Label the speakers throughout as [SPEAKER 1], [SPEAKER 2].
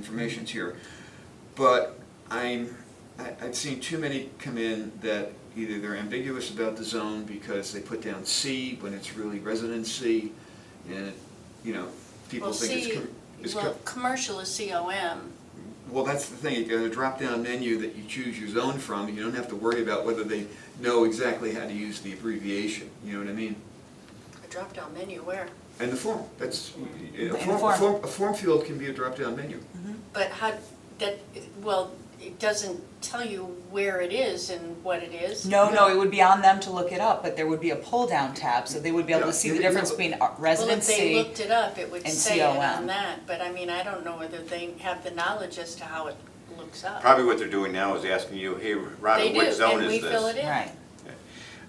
[SPEAKER 1] information's here. But I'm, I, I've seen too many come in that either they're ambiguous about the zone because they put down C when it's really resident C, and, you know, people
[SPEAKER 2] Well,
[SPEAKER 1] think it's.
[SPEAKER 2] C-
[SPEAKER 1] com- it's com-
[SPEAKER 2] Well, commercial is COM,
[SPEAKER 1] Well, that's the thing, you got a drop-down menu that you choose your zone from, you don't have to worry about whether they know exactly how to use the abbreviation, you know what I mean?
[SPEAKER 2] a drop-down menu where?
[SPEAKER 1] And the form, that's, a
[SPEAKER 3] And the
[SPEAKER 1] form, a
[SPEAKER 3] form.
[SPEAKER 1] form, a form field can be a drop-down menu.
[SPEAKER 2] But how, that, well, it doesn't tell you where it is and what it is.
[SPEAKER 3] No, no, it would be on them to look it up, but there would be a pull-down tab, so they would be able
[SPEAKER 1] Yeah.
[SPEAKER 3] to see the difference between uh,
[SPEAKER 2] Well, if they
[SPEAKER 3] residency.
[SPEAKER 2] looked it up, it would
[SPEAKER 3] and
[SPEAKER 2] say it on
[SPEAKER 3] COM.
[SPEAKER 2] that, but I mean, I don't know whether they have the knowledge as to how it looks up.
[SPEAKER 4] Probably what they're doing now is asking you, hey,
[SPEAKER 2] They
[SPEAKER 4] Rhonda,
[SPEAKER 2] do,
[SPEAKER 4] what zone
[SPEAKER 2] and
[SPEAKER 4] is
[SPEAKER 2] we fill it
[SPEAKER 4] this?
[SPEAKER 2] in.
[SPEAKER 3] Right,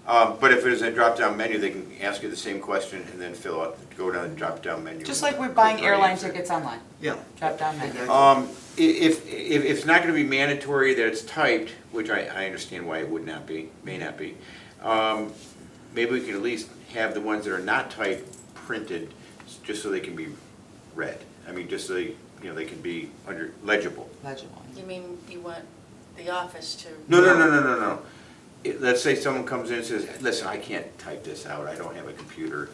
[SPEAKER 4] Um, But if it's a drop-down menu, they can ask you the same question and then fill out, go down the drop-down menu.
[SPEAKER 3] just like we're
[SPEAKER 4] and
[SPEAKER 3] buying
[SPEAKER 4] click right
[SPEAKER 3] airline
[SPEAKER 4] into it.
[SPEAKER 3] tickets online,
[SPEAKER 1] Yeah.
[SPEAKER 3] drop-down menu.
[SPEAKER 1] Exactly.
[SPEAKER 4] Um, i- If, if, if it's not gonna be mandatory that it's typed, which I, I understand why it would not be, may not be, um, maybe we could at least have the ones that are not typed printed, s- just so they can be read. I mean, just so they, you know, they can be under, legible.
[SPEAKER 3] legible.
[SPEAKER 2] You mean, you want the office to?
[SPEAKER 4] No, no, no, no, no, no. It- Let's say someone comes in and says, listen, I can't type this out, I don't have a computer.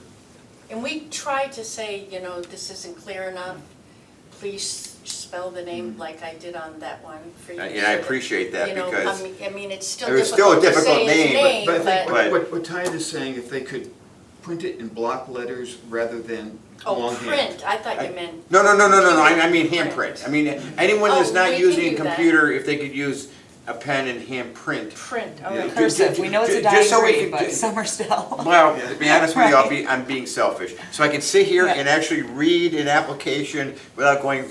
[SPEAKER 2] And we try to say, you know, this isn't clear enough, please spell the name like I did on that one for you.
[SPEAKER 4] Mm-hmm. Uh, yeah, I
[SPEAKER 2] so that-
[SPEAKER 4] appreciate that
[SPEAKER 2] you know, I
[SPEAKER 4] because
[SPEAKER 2] mean- I mean, it's still
[SPEAKER 4] it was still a
[SPEAKER 2] difficult to
[SPEAKER 4] difficult
[SPEAKER 2] say his name,
[SPEAKER 4] name, but-
[SPEAKER 1] But I think
[SPEAKER 2] but,
[SPEAKER 1] what- what, what Ty is saying, if they could print it in block letters rather than
[SPEAKER 2] oh,
[SPEAKER 1] longhand.
[SPEAKER 2] print, I thought you meant.
[SPEAKER 4] No, no, no, no, no, no, I I mean handprint. I mean, anyone that's
[SPEAKER 2] Oh,
[SPEAKER 4] not
[SPEAKER 2] we can
[SPEAKER 4] using
[SPEAKER 2] do
[SPEAKER 4] a
[SPEAKER 2] that.
[SPEAKER 4] computer, if they could use a pen and handprint.
[SPEAKER 2] Print, Oh, all
[SPEAKER 1] Yeah.
[SPEAKER 2] right.
[SPEAKER 3] Cursive, we know it's a
[SPEAKER 4] Ju- ju- just so we
[SPEAKER 3] diary,
[SPEAKER 4] can
[SPEAKER 3] but
[SPEAKER 4] ju-
[SPEAKER 3] some are still.
[SPEAKER 4] Well, to be honest with you, I'll
[SPEAKER 3] Right.
[SPEAKER 4] be, I'm being selfish. So I can sit here
[SPEAKER 3] Yeah.
[SPEAKER 4] and actually read an application without going,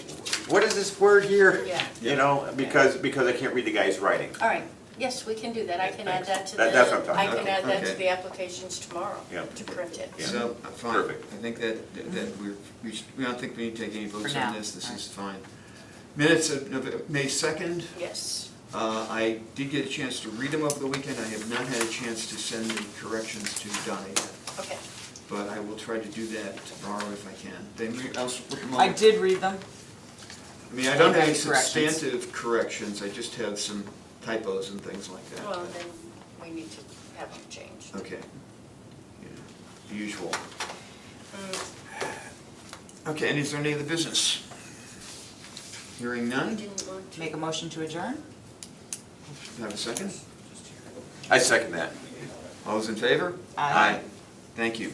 [SPEAKER 4] what is this word here?
[SPEAKER 2] Yeah.
[SPEAKER 4] You know, because, because I can't read the guy's writing.
[SPEAKER 2] All right, yes, we can do that, I can add that to the.
[SPEAKER 4] That- that's what I'm talking
[SPEAKER 2] I
[SPEAKER 4] about.
[SPEAKER 2] can add that to
[SPEAKER 1] Okay.
[SPEAKER 2] the applications tomorrow,
[SPEAKER 4] Yeah.
[SPEAKER 2] to print it.
[SPEAKER 4] Yeah.
[SPEAKER 1] So, uh, fine,
[SPEAKER 4] Perfect.
[SPEAKER 1] I think that, that- that we're, we should, we don't think we need to take any votes
[SPEAKER 3] For
[SPEAKER 1] on
[SPEAKER 3] now.
[SPEAKER 1] this, this
[SPEAKER 3] All
[SPEAKER 1] is fine. Minutes of Nov- May second,
[SPEAKER 2] Yes,
[SPEAKER 1] uh, I did get a chance to read them over the weekend, I have not had a chance to send the corrections to Donna yet.
[SPEAKER 2] okay.
[SPEAKER 1] But I will try to do that tomorrow if I can. They may, I'll, s- look 'em
[SPEAKER 3] I
[SPEAKER 1] over.
[SPEAKER 3] did read them,
[SPEAKER 1] I mean, I don't have any
[SPEAKER 3] Corrections.
[SPEAKER 1] substantive corrections, I just have some typos and things like that.
[SPEAKER 2] Well, then we need to have them changed.
[SPEAKER 1] Okay. Yeah, the Usual.
[SPEAKER 2] Mm,
[SPEAKER 1] Okay, and is there any other business? Hearing
[SPEAKER 2] We
[SPEAKER 1] none, do
[SPEAKER 2] didn't want to.
[SPEAKER 3] make a motion to adjourn?
[SPEAKER 1] I have a second?
[SPEAKER 4] I second that.
[SPEAKER 1] All those in favor?
[SPEAKER 3] Aye.
[SPEAKER 1] Thank you.